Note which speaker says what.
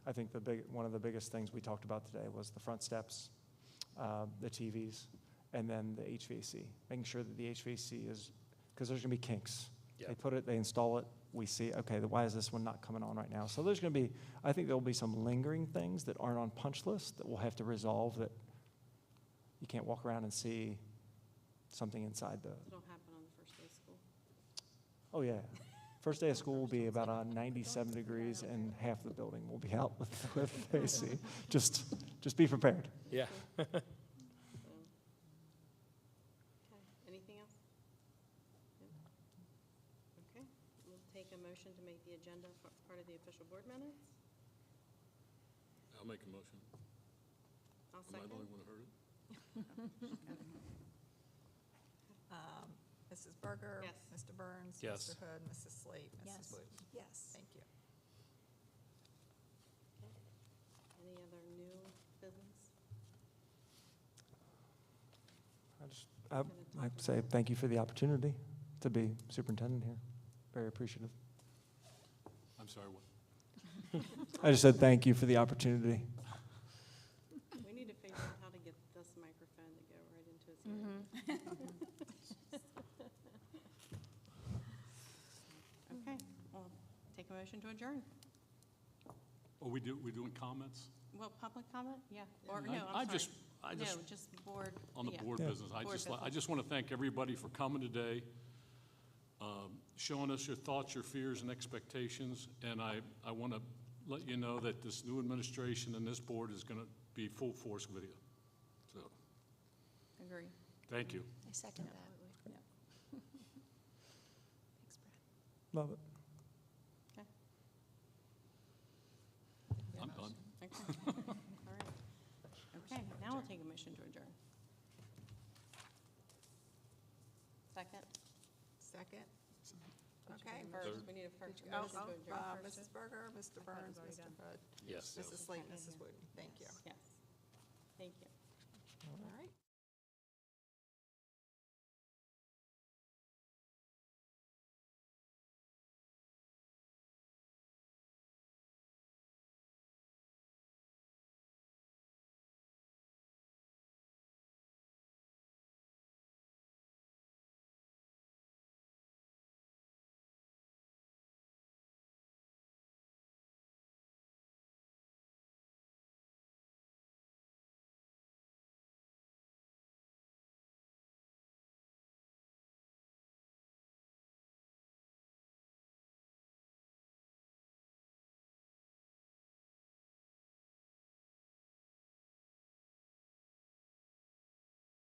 Speaker 1: I think the big, one of the biggest things we talked about today was the front steps, uh, the TVs, and then the HVAC, making sure that the HVAC is, because there's going to be kinks.
Speaker 2: Yeah.
Speaker 1: They put it, they install it, we see, okay, then why is this one not coming on right now? So there's going to be, I think there'll be some lingering things that aren't on punch list that we'll have to resolve that you can't walk around and see something inside the,
Speaker 3: It'll happen on the first day of school.
Speaker 1: oh yeah. First day of school will be about uh, 97 degrees and half the building will be out with, with AC. Just, just be prepared.
Speaker 2: Yeah.
Speaker 3: So, Okay, anything else? No? Okay, we'll take a motion to make the agenda fa- part of the official board minutes.
Speaker 4: I'll make a motion.
Speaker 3: I'll
Speaker 4: Am I the
Speaker 3: second.
Speaker 4: only one who heard it?
Speaker 5: Um, Mrs. Berger?
Speaker 3: Yes.
Speaker 5: Mr. Burns?
Speaker 2: Yes.
Speaker 5: Mr. Hood, Mrs. Slate? Mrs.
Speaker 6: Yes.
Speaker 5: Wu. Yes. Thank you.
Speaker 3: Any other new business?
Speaker 1: I just, I,
Speaker 3: Gonna
Speaker 1: I
Speaker 3: talk
Speaker 1: say thank you for the opportunity to be superintendent here. Very appreciative.
Speaker 4: I'm sorry, what?
Speaker 1: I just said thank you for the opportunity.
Speaker 3: about- We need to figure out how to get this microphone to go right into his ear. Okay, well, take a motion to adjourn.
Speaker 4: Oh, we do, we're doing comments?
Speaker 3: Well, public comment? Yeah, or
Speaker 4: I-
Speaker 3: no,
Speaker 4: I
Speaker 3: I'm sorry.
Speaker 4: just, I
Speaker 3: No,
Speaker 4: just,
Speaker 3: just board.
Speaker 4: on the
Speaker 3: yeah.
Speaker 4: board
Speaker 1: Yeah.
Speaker 4: business, I
Speaker 3: Board
Speaker 4: just, li- I
Speaker 3: business.
Speaker 4: just want to thank everybody for coming today, um, showing us your thoughts, your fears, and expectations. And I, I want to let you know that this new administration and this board is going to be full force with you. So,
Speaker 3: Agree.
Speaker 4: thank you.
Speaker 6: I second that.
Speaker 3: Absolutely.
Speaker 6: Thanks, Brad.
Speaker 1: Love it.
Speaker 4: I'm done.
Speaker 3: Okay. All right. Okay, now we'll take a motion to adjourn. Second?
Speaker 5: Second? Okay.
Speaker 3: First, we need a first
Speaker 5: Oh,
Speaker 3: motion
Speaker 5: oh,
Speaker 3: to
Speaker 5: uh,
Speaker 3: adjourn.
Speaker 5: Mrs. Berger, Mr.
Speaker 3: thought it was already
Speaker 5: Burns, Mr.
Speaker 3: done.
Speaker 5: Hood,
Speaker 4: Yes.
Speaker 5: Mrs. Slate,
Speaker 3: Okay,
Speaker 5: Mrs.
Speaker 3: yeah.
Speaker 5: Wooten. Thank you.
Speaker 3: Yes. Thank you.
Speaker 5: All right.